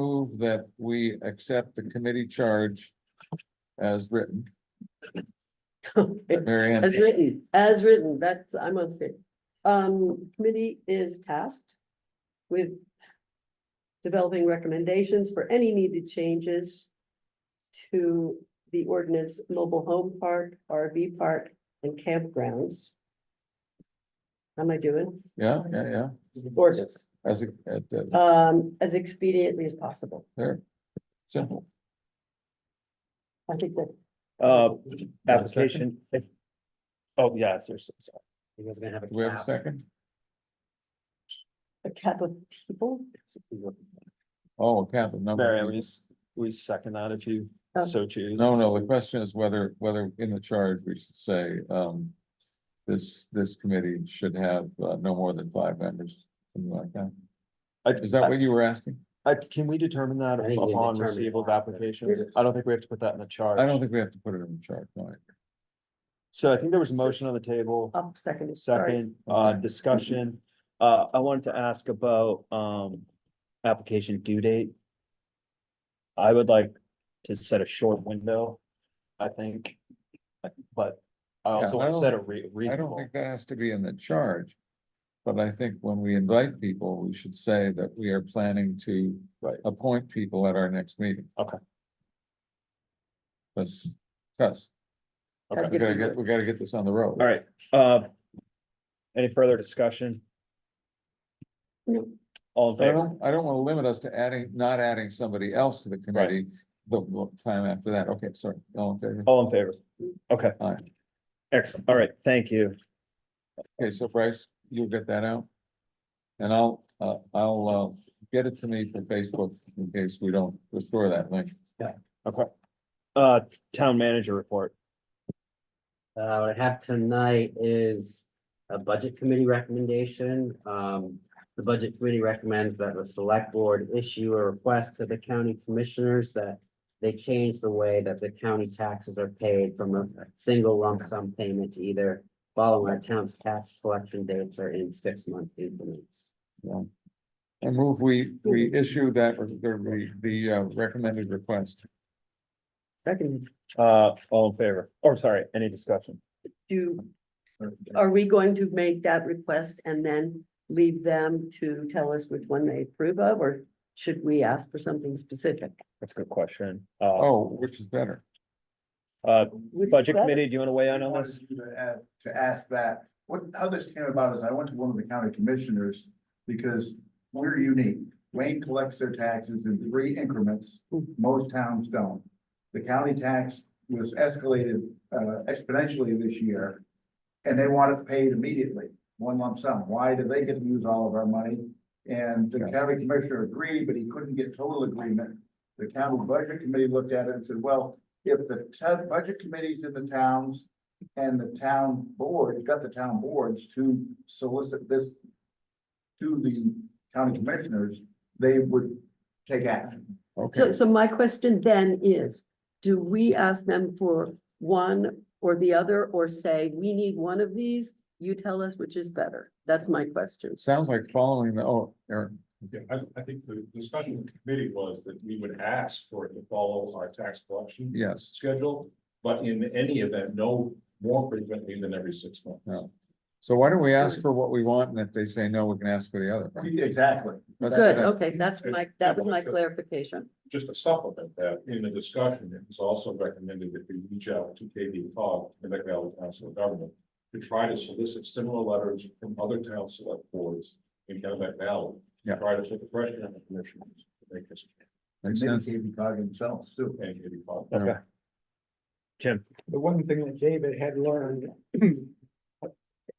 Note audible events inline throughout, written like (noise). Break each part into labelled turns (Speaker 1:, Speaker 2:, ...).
Speaker 1: move that we accept the committee charge as written.
Speaker 2: Okay.
Speaker 1: Mary Ann,
Speaker 2: As written, as written, that's, I'm on stage. Um, committee is tasked with developing recommendations for any needed changes to the ordinance mobile home park, RV park, and campgrounds. How am I doing?
Speaker 1: yeah, yeah, yeah,
Speaker 2: Ordinance,
Speaker 1: as, a- at, uh,
Speaker 2: um, as expediently as possible.
Speaker 1: there. Simple,
Speaker 2: I think that,
Speaker 3: Uh,
Speaker 1: a
Speaker 3: application. Oh, yes, there's, sorry.
Speaker 4: He was gonna have a.
Speaker 1: do we have a
Speaker 4: cap.
Speaker 1: second?
Speaker 2: a cap of people,
Speaker 1: Oh, a cap, a number.
Speaker 3: Mary, we just, we second that if you
Speaker 2: Oh.
Speaker 3: so choose.
Speaker 1: No, no, the question is whether, whether in the charge, we should say, um. This, this committee should have uh, no more than five members, something like that.
Speaker 3: I-
Speaker 1: Is that what you were asking?
Speaker 3: I, can we determine that
Speaker 4: I think we
Speaker 3: upon
Speaker 4: determine
Speaker 3: receival of
Speaker 4: that.
Speaker 3: applications? I don't think we have to put that in the chart.
Speaker 1: I don't think we have to put it in the chart, no.
Speaker 3: So I think there was a motion on the table,
Speaker 2: up Oh, second, sorry.
Speaker 3: second, uh,
Speaker 1: Okay.
Speaker 3: discussion. Uh, I wanted to ask about, um, application due date. I would like to set a short window, I think, but I
Speaker 1: Yeah,
Speaker 3: also
Speaker 1: I
Speaker 3: want to
Speaker 1: don't-
Speaker 3: set a re-
Speaker 1: I don't
Speaker 3: reasonable.
Speaker 1: think that has to be in the charge. But I think when we invite people, we should say that we are planning to.
Speaker 3: Right.
Speaker 1: Appoint people at our next meeting.
Speaker 3: Okay.
Speaker 1: That's, that's,
Speaker 3: Okay.
Speaker 1: we gotta get, we gotta get this on the road.
Speaker 3: All right, uh. Any further discussion?
Speaker 2: No.
Speaker 3: All in
Speaker 1: I
Speaker 3: favor?
Speaker 1: don't, I don't wanna limit us to adding, not adding somebody else to the committee the the time after that. Okay, sorry. All in favor?
Speaker 3: All in favor? Okay.
Speaker 1: Aye.
Speaker 3: Excellent. All right, thank you.
Speaker 1: Okay, so Bryce, you'll get that out? And I'll, uh, I'll, uh, get it to me for Facebook in case we don't restore that link.
Speaker 3: Uh, town manager report.
Speaker 4: Uh, what I have tonight is a budget committee recommendation. Um, the budget committee recommends that the select board issue a request to the county commissioners that they change the way that the county taxes are paid from a single lump sum payment to either following our town's tax collection dates or in six-month increments.
Speaker 1: I move we, we issue that, or the, the uh, recommended request.
Speaker 2: Second,
Speaker 3: Uh, all in favor? Or sorry, any discussion?
Speaker 2: do Are we going to make that request and then leave them to tell us which one they approve of, or should we ask for something specific?
Speaker 3: That's a good question. Uh,
Speaker 1: Oh, which is better.
Speaker 3: uh,
Speaker 2: Which is
Speaker 3: budget
Speaker 2: better?
Speaker 3: committee, do you want to weigh in on
Speaker 5: wanted
Speaker 3: this?
Speaker 5: you To add- to ask that, what, how this came about is I went to one of the county commissioners because we're unique. Wayne collects their taxes in three increments, most towns don't. The county tax was escalated uh, exponentially this year. And they want it paid immediately, one lump sum. Why do they get to use all of our money? And the county commissioner agreed, but he couldn't get total agreement. The county budget committee looked at it and said, well, if the town- budget committees in the towns and the town board, got the town boards to solicit this to the county commissioners, they would take action.
Speaker 2: So,
Speaker 1: Okay,
Speaker 2: so my question then is, do we ask them for one or the other, or say, we need one of these? You tell us which is better. That's my question.
Speaker 1: it sounds like following the, oh, Aaron,
Speaker 6: Yeah, I, I think the discussion with the committee was that we would ask for it to follow our tax collection
Speaker 1: yes,
Speaker 6: schedule, but in any event, no more frequently than every six months.
Speaker 1: no. So why don't we ask for what we want and if they say no, we can ask for the other. right?
Speaker 5: Exactly.
Speaker 1: That's-
Speaker 2: Good,
Speaker 1: that-
Speaker 2: okay, that's my, that was my clarification.
Speaker 6: Just to supplement that, in the discussion, it was also recommended that we reach out to KB Cog, Quebec Valley Council of Government, to try to solicit similar letters from other town select boards in Kennebec Valley. to
Speaker 1: Yeah.
Speaker 6: Try to put the pressure on the commissioners to make this,
Speaker 1: Makes
Speaker 5: Maybe
Speaker 1: sense.
Speaker 5: KB cog themselves too.
Speaker 6: and KB Cog.
Speaker 1: Yeah.
Speaker 3: Okay. Jim,
Speaker 7: the one thing that David had learned (clears throat)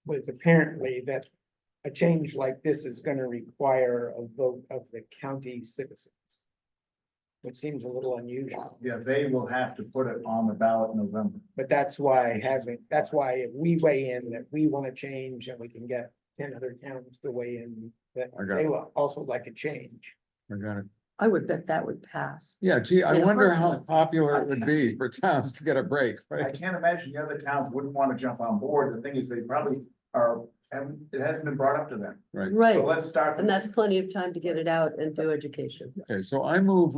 Speaker 7: was apparently that a change like this is gonna require a vote of the county citizens, which seems a little unusual,
Speaker 5: Yeah, they will have to put it on the ballot in November.
Speaker 7: but that's why having, that's why if we weigh in that we wanna change and we can get ten other towns to weigh in that
Speaker 1: I got
Speaker 7: they
Speaker 1: it,
Speaker 7: will also like a change.
Speaker 1: I got it.
Speaker 2: I would bet that would pass.
Speaker 1: Yeah, gee, I
Speaker 2: Yeah.
Speaker 1: wonder how popular it would be for towns to get a break,
Speaker 5: I
Speaker 1: right?
Speaker 5: can't imagine the other towns wouldn't want to jump on board. The thing is, they probably are, haven't, it hasn't been brought up to them.
Speaker 1: Right,
Speaker 5: So
Speaker 2: Right,
Speaker 5: let's start.
Speaker 2: and that's plenty of time to get it out and do education.
Speaker 1: okay, so I move